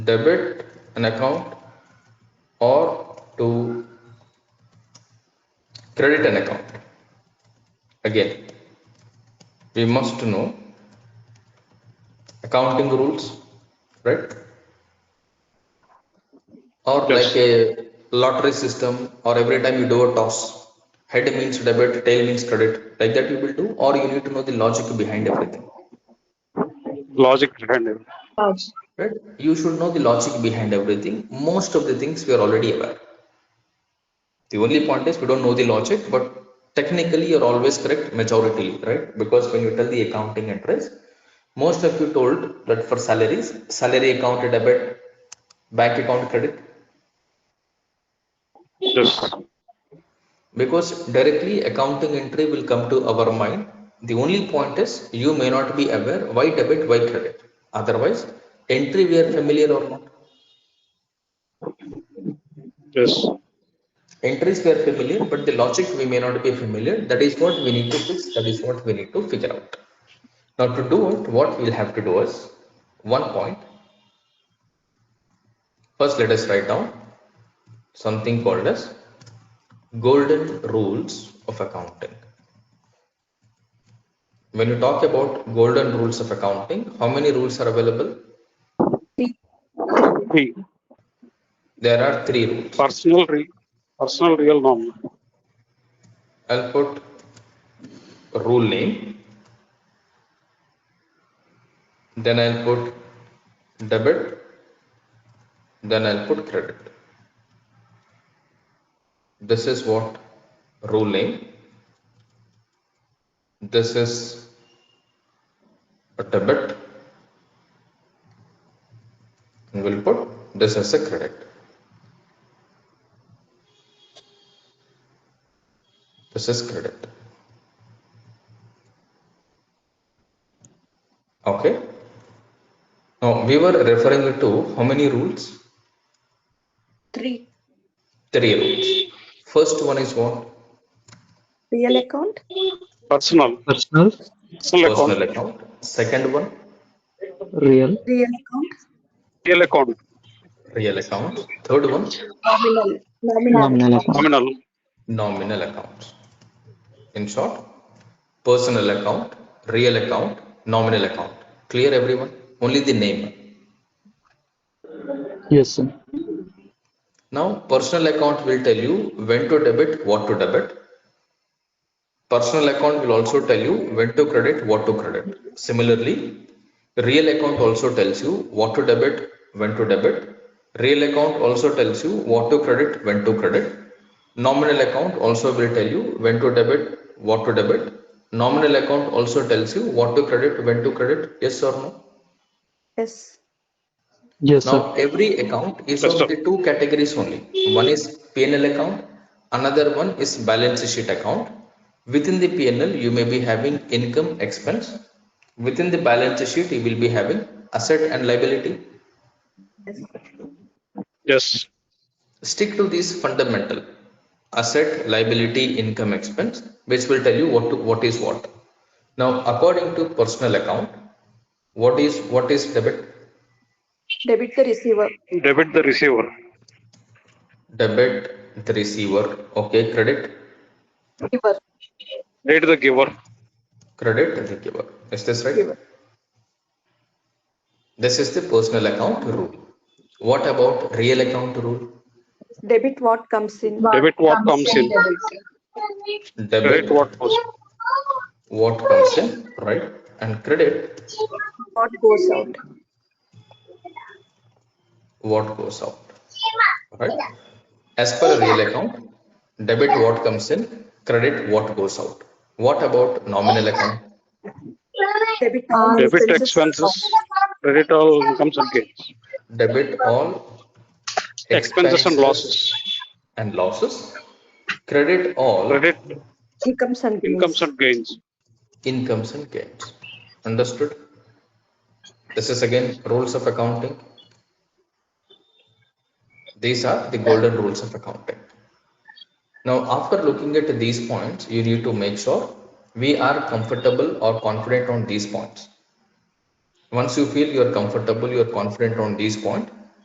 debit an account or to credit an account. Again, we must know accounting rules, right? Or Yes. like a lottery system, or every time you do a toss, head means debit, tail means credit. Like that, you will do, or you need to know the logic behind everything. Logic behind it. right you should know the logic behind everything most of the things we are already aware the only point is we don't know the logic but technically you're always correct majority right because when you tell the accounting address most of you told that for salaries salary account debit bank account credit Yes. because directly accounting entry will come to our mind the only point is you may not be aware why debit why credit otherwise entry we are familiar or not Yes. entries we are familiar but the logic we may not be familiar that is what we need to fix that is what we need to figure out now to do it what we'll have to do is one point first let us write down something called as golden rules of accounting when you talk about golden rules of accounting how many rules are available Three. there are three rules Personal re, personal real norm. I'll put rule name. Then I'll put debit. Then I'll put credit. This is what rule name. This is a debit. And we'll put this as a credit. This is credit. Okay. Now we were referring to how many rules? Three. Three rules. First one is what? Real account? Personal. personal, Personal Personal account. account. Second one, real, Real account? Real account. real account. Third one, Nominal. Nominal. nominal account, Nominal. nominal accounts. In short, personal account, real account, nominal account. Clear everyone? Only the name. yes, sir. Now, personal account will tell you when to debit, what to debit. Personal account will also tell you when to credit, what to credit. Similarly, real account also tells you what to debit, when to debit. Real account also tells you what to credit, when to credit. Nominal account also will tell you when to debit, what to debit. Nominal account also tells you what to credit, when to credit. Yes or no? Yes. yes, Now, sir. every account is Yes, of sir. the two categories only. One is P&L account, another one is balance sheet account. Within the P&L, you may be having income expense. Within the balance sheet, you will be having asset and liability. Yes. Yes. Stick to these fundamental asset, liability, income expense, which will tell you what to, what is what. Now, according to personal account, what is what is debit? Debit the receiver. Debit the receiver. Debit the receiver. Okay, credit Giver. Date the giver. credit and the giver. Is this right? This is the personal account rule. What about real account rule? Debit what comes in? Debit what comes in. Credit Debit, what goes. what comes in, right? And credit, What goes out? what goes out, right? As per real account, debit what comes in, credit what goes out. What about nominal account? Debit all Debit expenses. Credit all incomes and gains. Debit all Expenses and losses. and losses. Credit all Credit Incomes and gains. incomes and gains. incomes and gains. Understood? This is again rules of accounting. These are the golden rules of accounting. Now, after looking at these points, you need to make sure we are comfortable or confident on these points. Once you feel you are comfortable, you are confident on these points,